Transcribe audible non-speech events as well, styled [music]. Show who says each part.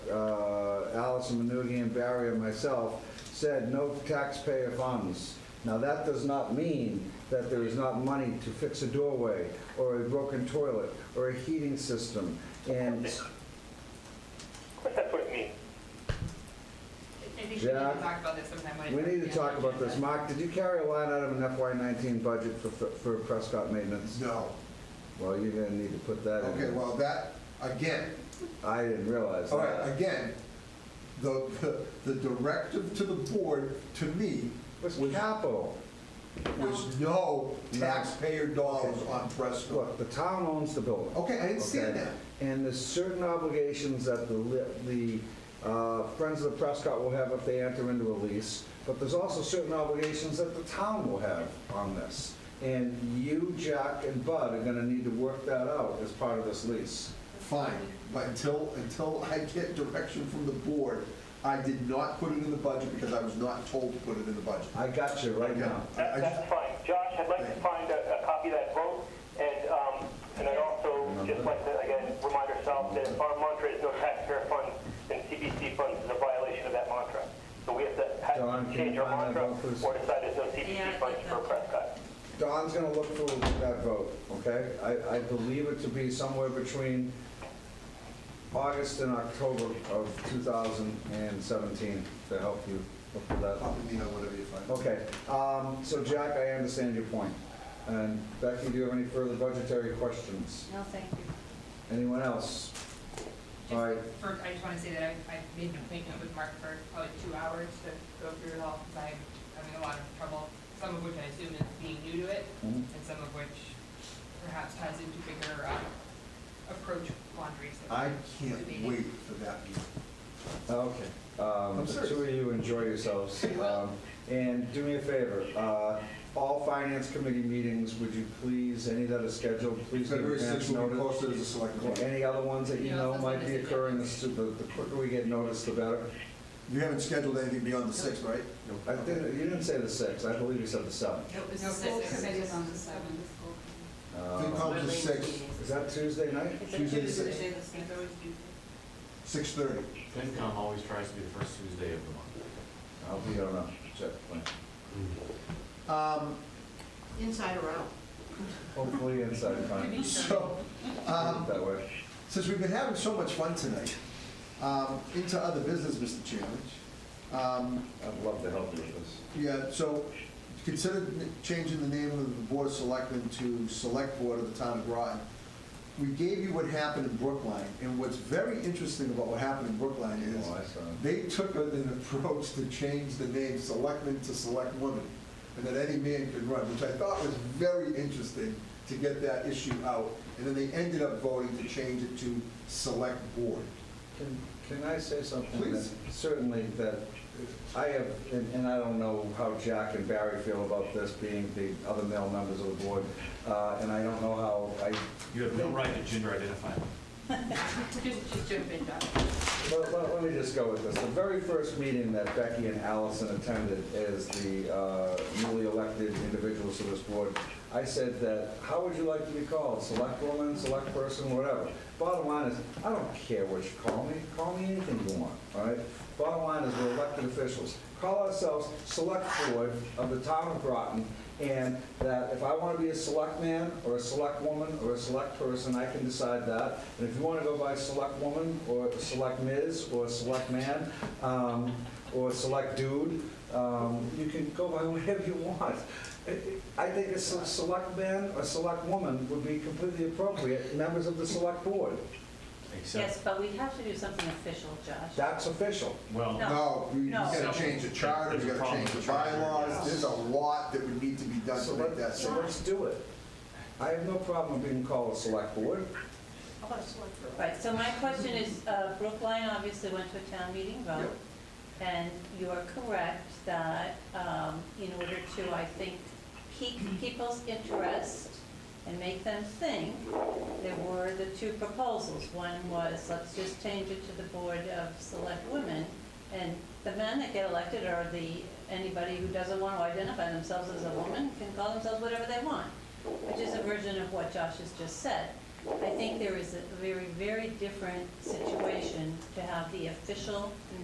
Speaker 1: Councilman Noonan uh, and Barry and myself, said no taxpayer funds. Now, that does not mean that there is not money to fix a doorway, or a broken toilet, or a heating system, and,
Speaker 2: But that's what it means.
Speaker 3: I think we need
Speaker 1: Yeah.
Speaker 3: to talk about this sometime when.
Speaker 1: we
Speaker 3: it's-
Speaker 1: need to
Speaker 3: yeah,
Speaker 1: talk about this.
Speaker 3: agenda.
Speaker 1: Mark, did you carry a line item in FY nineteen budget for, for Prescott maintenance?
Speaker 4: No.
Speaker 1: Well, you're gonna need to put that in.
Speaker 4: Okay, well, that, again,
Speaker 1: I didn't realize
Speaker 4: all right,
Speaker 1: that.
Speaker 4: again, the, the- the directive to the board, to me,
Speaker 1: It's capital.
Speaker 4: was no taxpayer dollars on Prescott.
Speaker 1: Look, the town owns the building.
Speaker 4: Okay, I understand
Speaker 1: okay?
Speaker 4: that.
Speaker 1: And there's certain obligations that the, li- the uh, Friends of the Prescott will have if they enter into a lease, but there's also certain obligations that the town will have on this. And you, Jack, and Bud are gonna need to work that out as part of this lease.
Speaker 4: Fine, but until, until I get direction from the board, I did not put it in the budget because I was not told to put it in the budget.
Speaker 1: I got you right now.
Speaker 4: I- I
Speaker 2: That- That's fine. Josh, I'd like to find a a copy of that vote, and, um, and I'd also just like to, again, remind ourselves that our mantra is no taxpayer funds, and CPC funds is a violation of that mantra. So we have to
Speaker 1: John, can
Speaker 2: have to
Speaker 1: you
Speaker 2: change our
Speaker 1: find that
Speaker 2: mantra,
Speaker 1: vote, please?
Speaker 2: or decide there's no
Speaker 3: Yeah,
Speaker 2: CPC
Speaker 3: I'd
Speaker 2: funds
Speaker 3: like
Speaker 2: for
Speaker 3: that.
Speaker 2: Prescott.
Speaker 1: Don's gonna look through that vote, okay? I, I believe it to be somewhere between August and October of 2017 to help you look for that.
Speaker 4: Copy me on whatever you find.
Speaker 1: Okay, um, so Jack, I understand your point. And Becky, do you have any further budgetary questions?
Speaker 3: No, thank you.
Speaker 1: Anyone else?
Speaker 3: Just
Speaker 1: All right,
Speaker 3: for- I just want to say that I, I made an appointment with Mark for probably two hours to go through it all, because I'm having a lot of trouble, some of which I assume is being new to it,
Speaker 4: Hmm?
Speaker 1: Mhm.
Speaker 3: and some of which perhaps ties into bigger um, approach quandaries. that
Speaker 4: I
Speaker 3: we're
Speaker 4: can't
Speaker 3: debating.
Speaker 4: wait for that meeting.
Speaker 1: okay. Um,
Speaker 4: I'm
Speaker 1: The
Speaker 4: serious.
Speaker 1: two of you enjoy
Speaker 4: [laughs]
Speaker 1: yourselves. Um, And do me a favor, uh, all finance committee meetings, would you please, any that are scheduled, please give
Speaker 4: February
Speaker 1: advance
Speaker 4: 6th will be
Speaker 1: notice.
Speaker 4: posted as a select
Speaker 1: Or
Speaker 4: board.
Speaker 1: Any other ones that you
Speaker 3: Yeah,
Speaker 1: know
Speaker 3: that's
Speaker 1: might
Speaker 3: what I
Speaker 1: be
Speaker 3: said, yeah.
Speaker 1: occurring, the s- the the quicker we get noticed, the better.
Speaker 4: You haven't scheduled anything beyond the 6th, right?
Speaker 1: I didn't, you didn't say the 6th, I believe you said the 7th.
Speaker 3: Nope, it's
Speaker 5: No,
Speaker 3: the
Speaker 5: full
Speaker 3: sixth.
Speaker 5: committee is on the seventh.
Speaker 4: Think
Speaker 1: Uh,
Speaker 4: I'll just 6,
Speaker 1: Is that Tuesday night?
Speaker 5: It's a
Speaker 4: Tuesday the
Speaker 5: Tuesday,
Speaker 4: sixth.
Speaker 5: the seventh.
Speaker 4: 6:30.
Speaker 6: FinCom always tries to be the first Tuesday of the month.
Speaker 1: I'll be, I don't know, check the plan.
Speaker 4: Um,
Speaker 5: Inside or out?
Speaker 1: Hopefully inside time,
Speaker 4: So, um,
Speaker 1: that way.
Speaker 4: since we've been having so much fun tonight, um, into other business, Mr. Chairman. Um,
Speaker 1: I'd love to help you with this.
Speaker 4: Yeah, so consider n- changing the name of the Board of Selectmen to Select Board of the Town of Groton. We gave you what happened in Brookline, and what's very interesting about what happened in Brookline is
Speaker 1: Oh, I saw it.
Speaker 4: they took an approach to change the name Selectmen to Select Women, and that any man could run, which I thought was very interesting to get that issue out. And then they ended up voting to change it to Select Board.
Speaker 1: Can, can I say something?
Speaker 4: Please.
Speaker 1: that- Certainly that I have, and, and I don't know how Jack and Barry feel about this being the other male members of the board, uh, and I don't know how I,
Speaker 6: You have no right to gender identify.
Speaker 3: Just, just jump in, Doc.
Speaker 1: let, let- let me just go with this. The very first meeting that Becky and Allison attended as the uh, newly elected individuals to this board, I said that, how would you like to be called? Select woman, select person, whatever. Bottom line is, I don't care what you call me, call me anything you want, all right? Bottom line is, we're elected officials. Call ourselves Select Board of the Town of Groton, and that if I want to be a select man, or a select woman, or a select person, I can decide that. And if you want to go by select woman, or select Ms., or select man, um, or select dude, um, you can go by [laughs] whatever you want. I- I think a se- select man or select woman would be completely appropriate, members of the select board.
Speaker 7: Yes,
Speaker 6: Except,
Speaker 7: but we have to do something official, Josh.
Speaker 1: That's official.
Speaker 6: well,
Speaker 7: No.
Speaker 4: No, you you
Speaker 7: No.
Speaker 4: gotta change the charter, you
Speaker 6: There's a
Speaker 4: gotta
Speaker 6: problem
Speaker 4: change the
Speaker 6: with the charter.
Speaker 4: bylaws, there's a lot that would need to be done to
Speaker 1: So
Speaker 4: make
Speaker 1: let-
Speaker 4: that.
Speaker 1: so
Speaker 4: so-
Speaker 1: let's do it. I have no problem being called a select board.
Speaker 5: How about a select girl?
Speaker 7: Right, so my question is, uh, Brookline obviously went to a town meeting vote, and you are correct that um, in order to, I think, pique people's interest and make them think, there were the two proposals. One was, let's just change it to the Board of Select Women, and the men that get elected are the, anybody who doesn't want to identify themselves as a woman can call themselves whatever they want, which is a version of what Josh has just said. I think there is a very, very different situation to have the official